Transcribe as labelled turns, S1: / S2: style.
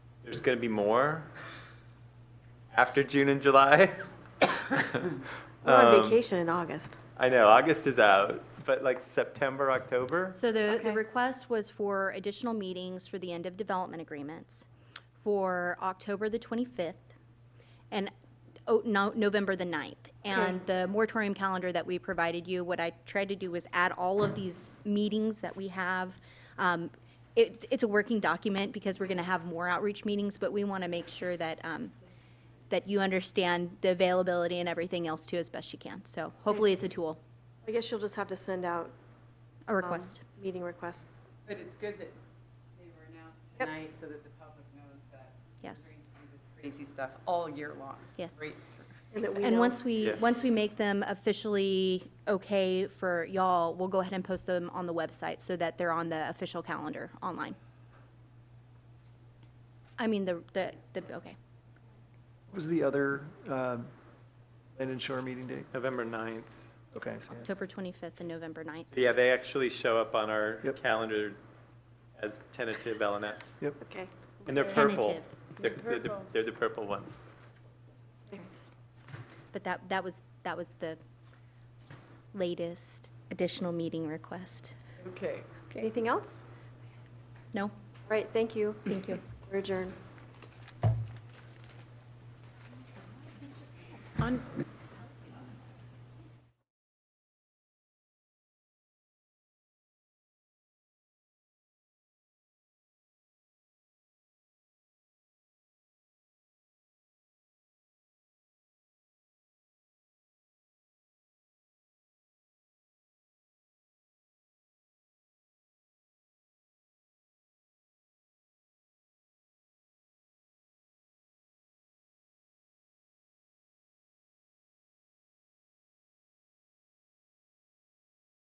S1: There's going to be more after June and July.
S2: We're on
S1: Um,
S2: vacation in August.
S1: I know, August is out, but like September, October?
S3: So the,
S2: Okay.
S3: the request was for additional meetings for the end of development agreements for October the 25th and oh, no, November the 9th. And the moratorium calendar that we provided you, what I tried to do was add all of these meetings that we have. Um, It's, it's a working document because we're going to have more outreach meetings, but we want to make sure that, um, that you understand the availability and everything else too as best you can. So hopefully it's a tool,
S2: I guess you'll just have to send out
S3: a
S2: um,
S3: request.
S2: meeting requests.
S4: But it's good that they were announced
S2: Yep.
S4: tonight so that the public knows that. we're
S3: Yes.
S4: going to do this Crazy stuff all year long.
S3: Yes.
S4: Right through.
S2: And that we
S3: And
S2: know.
S3: once we,
S1: Yeah.
S3: once we make them officially okay for y'all, we'll go ahead and post them on the website so that they're on the official calendar online. I mean, the, the, the, okay.
S5: What was the other um, Land and Shore meeting date?
S1: November 9th.
S5: Okay, so yeah.
S3: October 25th and November 9th.
S1: Yeah, they actually show up on our
S5: Yep.
S1: calendar as tentative LNS.
S5: yep.
S2: Okay.
S1: And they're purple.
S3: Tentative.
S1: They're, they're the- they're the purple ones.
S3: But that, that was, that was the latest additional meeting request.
S4: Okay.
S2: Anything else?
S3: No?
S2: Right, thank you.
S3: Thank you.
S2: We're adjourned.
S6: On,